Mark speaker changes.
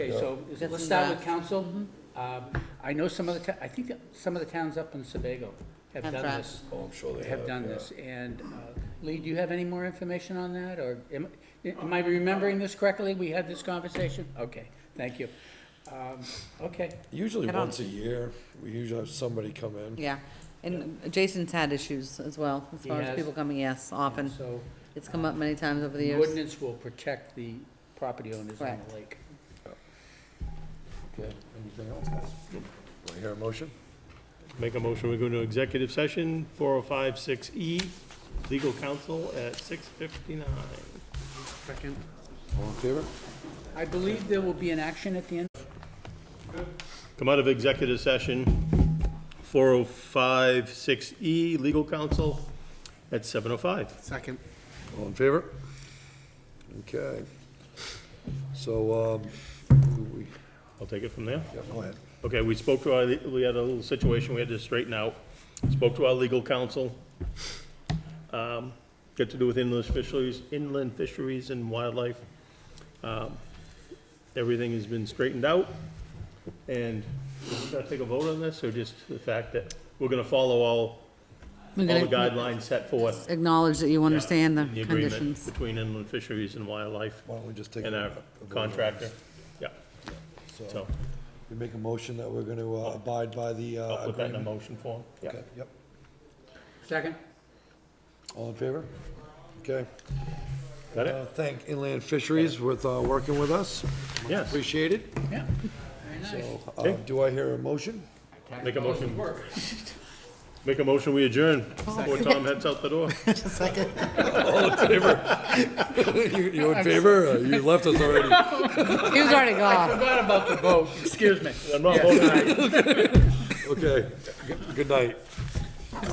Speaker 1: Okay, so is-
Speaker 2: That's
Speaker 1: let's start
Speaker 2: enough.
Speaker 1: with council.
Speaker 2: Mm-hmm.
Speaker 1: Um, I know some of the, I think that some of the towns up in Sebago have
Speaker 2: Have
Speaker 1: done
Speaker 2: tried.
Speaker 1: this,
Speaker 3: Oh, I'm sure they have.
Speaker 1: have done
Speaker 3: yeah.
Speaker 1: this. And uh, Lee, do you have any more information on that, or am am I remembering this correctly? We had this conversation? Okay, thank you. Um, Okay,
Speaker 3: Usually
Speaker 2: I don't-
Speaker 3: once a year, we usually have somebody come in.
Speaker 2: Yeah, and Jason's had issues as well, as
Speaker 1: He
Speaker 2: far as
Speaker 1: has.
Speaker 2: people coming, yes, often.
Speaker 1: so
Speaker 2: It's come up many times over the
Speaker 1: the
Speaker 2: years.
Speaker 1: ordinance will protect the property owners on
Speaker 2: Correct.
Speaker 1: the lake.
Speaker 3: Okay, anything else, guys? Do I hear a motion?
Speaker 4: Make a motion, we go into executive session, 4056E, E, legal counsel at 6:59.
Speaker 1: Second.
Speaker 3: All in favor?
Speaker 1: I believe there will be an action at the end.
Speaker 4: Come out of executive session, 4056E, E, legal counsel at 7:05.
Speaker 1: Second.
Speaker 3: All in favor? Okay. So, um, we,
Speaker 4: I'll take it from there.
Speaker 3: yeah, go ahead.
Speaker 4: Okay, we spoke to our, we had a little situation we had to straighten out. Spoke to our legal counsel. um, Got to do with inland fisheries, inland fisheries and wildlife. Um, Everything has been straightened out. And we gotta take a vote on this, or just the fact that we're gonna follow all,
Speaker 2: We're
Speaker 4: all the
Speaker 2: gonna
Speaker 4: guidelines set forth.
Speaker 2: Acknowledge that you understand the
Speaker 4: in the agreement
Speaker 2: conditions.
Speaker 4: Between inland fisheries and wildlife
Speaker 3: Why don't we just take?
Speaker 4: and
Speaker 3: a-
Speaker 4: our
Speaker 3: a vote on this?
Speaker 4: contractor. Yeah,
Speaker 3: So,
Speaker 4: so,
Speaker 3: we make a motion that we're gonna uh, abide by the uh,
Speaker 4: I'll put that in a
Speaker 3: agreement.
Speaker 4: motion form. Yeah.
Speaker 3: Okay, Yep.
Speaker 1: Second.
Speaker 3: All in favor? Okay.
Speaker 4: Got
Speaker 3: Uh,
Speaker 4: it?
Speaker 3: Thank Inland Fisheries with, uh, working with us.
Speaker 4: Yes.
Speaker 3: Appreciate it.
Speaker 1: Yeah, very nice.
Speaker 3: Uh, do I hear a motion?
Speaker 4: Make a motion. Make a motion, we adjourn before Tom heads out the door.
Speaker 3: You you in favor? Uh, You left us already.
Speaker 2: He was already gone.
Speaker 1: Forgot about the vote, excuse me.
Speaker 4: I'm not voting aye.
Speaker 3: Okay, G- good night.